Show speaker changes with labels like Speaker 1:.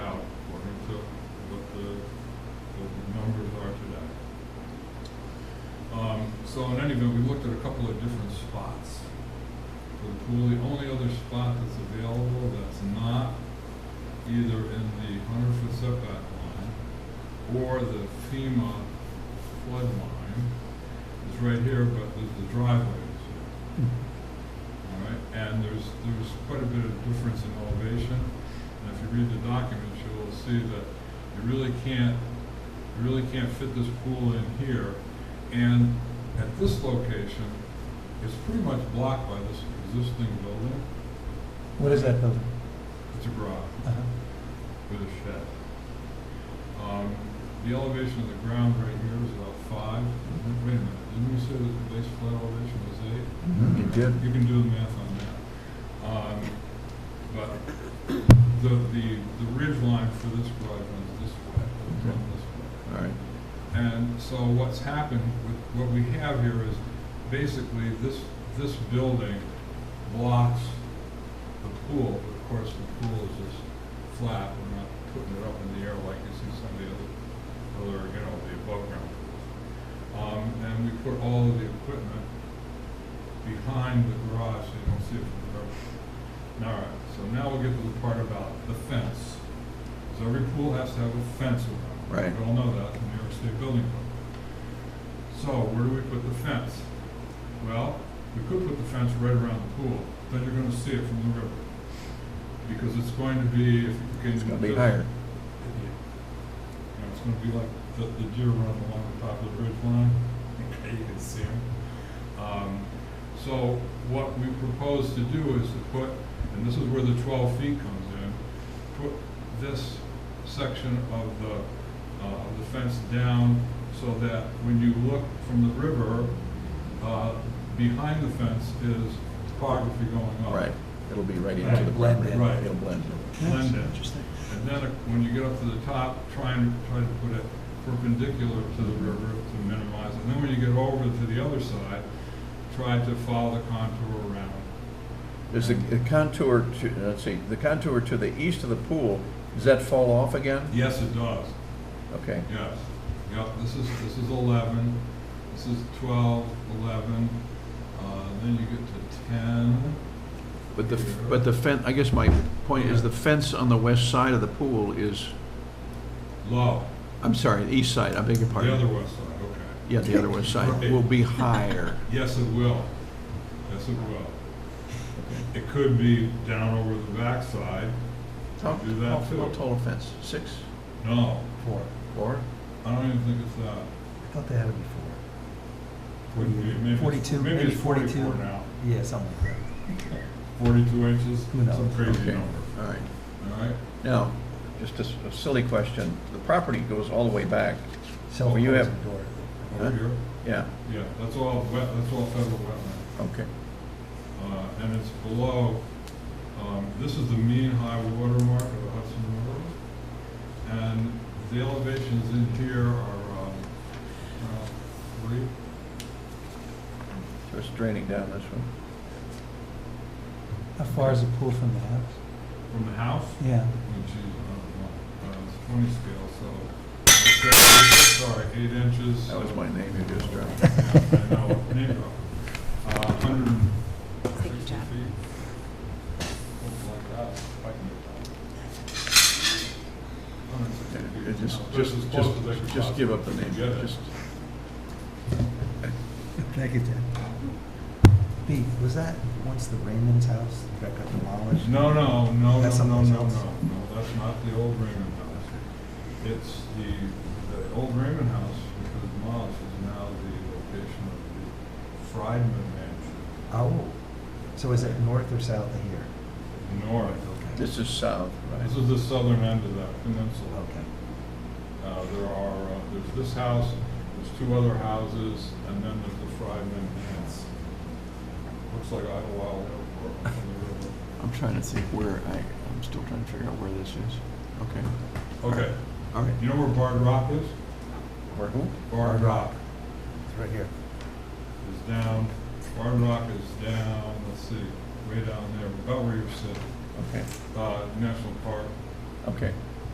Speaker 1: Um, So in any event, we looked at a couple of different spots for the pool. The only other spot that's available that's not either in the hundred foot setback line or the FEMA flood line is right here, but there's the driveway is here. All right, and there's, there's quite a bit of difference in elevation. And if you read the documents, you'll see that you really can't, you really can't fit this pool in here. And at this location, it's pretty much blocked by this existing building.
Speaker 2: What is that building?
Speaker 1: It's a garage
Speaker 2: Uh-huh.
Speaker 1: with a shed. Um, The elevation of the ground right here is about five. Wait a minute, didn't you say that the base flood elevation was eight?
Speaker 3: You did.
Speaker 1: You can do the math on that. Um, But the, the, the ridge line for this garage runs this way, it runs this way.
Speaker 3: All right.
Speaker 1: And so what's happened, with- what we have here is basically this, this building blocks the pool. Of course, the pool is just flat, we're not putting it up in the air like you see some of the other, other, you know, the above ground. Um, and we put all of the equipment behind the garage so you don't see it from the road. All right, so now we'll get to the part about the fence. So every pool has to have a fence around. it.
Speaker 3: Right.
Speaker 1: We all know that from New York State Building Code. So where do we put the fence? Well, we could put the fence right around the pool, then you're gonna see it from the river. Because it's going to be, if you can.
Speaker 3: It's gonna be
Speaker 1: just-
Speaker 3: higher.
Speaker 1: you know, it's gonna be like the, the deer run along the top of the ridge line, okay, you can see them. Um, so what we propose to do is to put, and this is where the twelve feet comes in, put this section of the, uh, of the fence down so that when you look from the river, uh, behind the fence is topography going up.
Speaker 3: Right. It'll be
Speaker 1: Right,
Speaker 3: right into the
Speaker 2: blend
Speaker 3: property.
Speaker 1: in. Right.
Speaker 3: It'll blend in.
Speaker 1: Blend in.
Speaker 2: Interesting.
Speaker 1: And then uh, when you get up to the top, try and, try to put it perpendicular to the river to minimize. And then when you get over to the other side, try to follow the contour around.
Speaker 3: There's a a contour to, let's see, the contour to the east of the pool, does that fall off again?
Speaker 1: Yes, it does,
Speaker 3: Okay.
Speaker 1: yes. Yep, this is, this is eleven, this is twelve, eleven, uh, then you get to ten.
Speaker 3: But the, but the fence, I guess my point is the fence on the west side of the pool is,
Speaker 1: Low,
Speaker 3: I'm sorry, east side, I beg your
Speaker 1: the other
Speaker 3: pardon.
Speaker 1: west side, okay.
Speaker 3: Yeah, the other west side will be higher.
Speaker 1: Yes, it will, yes, it will. It could be down over the backside,
Speaker 3: How,
Speaker 1: Do that
Speaker 3: how how
Speaker 1: too.
Speaker 3: tall a fence? Six?
Speaker 1: no,
Speaker 2: Four.
Speaker 3: Four?
Speaker 1: I don't even think it's that.
Speaker 2: I thought they had it before.
Speaker 1: Wouldn't be, maybe. it's-
Speaker 2: 42,
Speaker 1: Maybe it's
Speaker 2: maybe 42.
Speaker 1: forty-four now,
Speaker 2: Yeah, something like
Speaker 1: forty-two inches,
Speaker 2: Who knows?
Speaker 1: some crazy
Speaker 3: Okay,
Speaker 1: number,
Speaker 3: all right.
Speaker 1: all right?
Speaker 3: Now, just a s- a silly question, the property goes all the way back,
Speaker 2: that.
Speaker 3: Well, you have-
Speaker 2: Self-closing door.
Speaker 3: Huh?
Speaker 1: Over here,
Speaker 3: yeah,
Speaker 1: yeah, that's all wet, that's all federal wetland,
Speaker 3: okay.
Speaker 1: uh, and it's below, um, this is the mean high water mark of the Hudson River. And the elevations in here are, um, uh, three,
Speaker 3: So it's draining down this one.
Speaker 2: How far is the pool from the house?
Speaker 1: from the house,
Speaker 2: Yeah.
Speaker 1: which is, I don't know, uh, it's twenty scale, so, sorry, eight inches.
Speaker 3: That was my name you just dropped.
Speaker 1: I know, name drop. Uh, 160
Speaker 4: Take your
Speaker 1: feet.
Speaker 4: time.
Speaker 1: Something like that, if I can get that. 160 feet.
Speaker 3: It Just,
Speaker 1: Now, this
Speaker 3: just,
Speaker 1: is close as I could
Speaker 3: just, just give up the name.
Speaker 1: possibly get it.
Speaker 3: Just-
Speaker 2: Thank you, Ted. B, was that once the Raymond's house that got demolished?
Speaker 1: No, no, no, no,
Speaker 2: That's
Speaker 1: no, no,
Speaker 2: something
Speaker 1: no,
Speaker 2: else.
Speaker 1: no, that's not the old Raymond House. It's the, the old Raymond House, which was demolished, is now the location of the Friedman Mansion,
Speaker 2: Oh, so is it north or south of here?
Speaker 1: north.
Speaker 2: Okay.
Speaker 3: This is south,
Speaker 1: This
Speaker 3: right?
Speaker 1: is the southern end of that peninsula.
Speaker 2: Okay.
Speaker 1: Uh, There are, uh, there's this house, there's two other houses, and then there's the Friedman Ants. Looks like Idlewild Airport on the
Speaker 5: I'm trying to think where I, I'm still trying to figure out where this is. Okay,
Speaker 1: river. Okay,
Speaker 5: all right.
Speaker 1: you know where Bard Rock is?
Speaker 3: Where who?
Speaker 1: Bard Rock
Speaker 2: It's right here.
Speaker 1: is down, Bard Rock is down, let's see, way down there, about where you're sitting,
Speaker 3: Okay,
Speaker 1: uh, National Park.
Speaker 3: okay.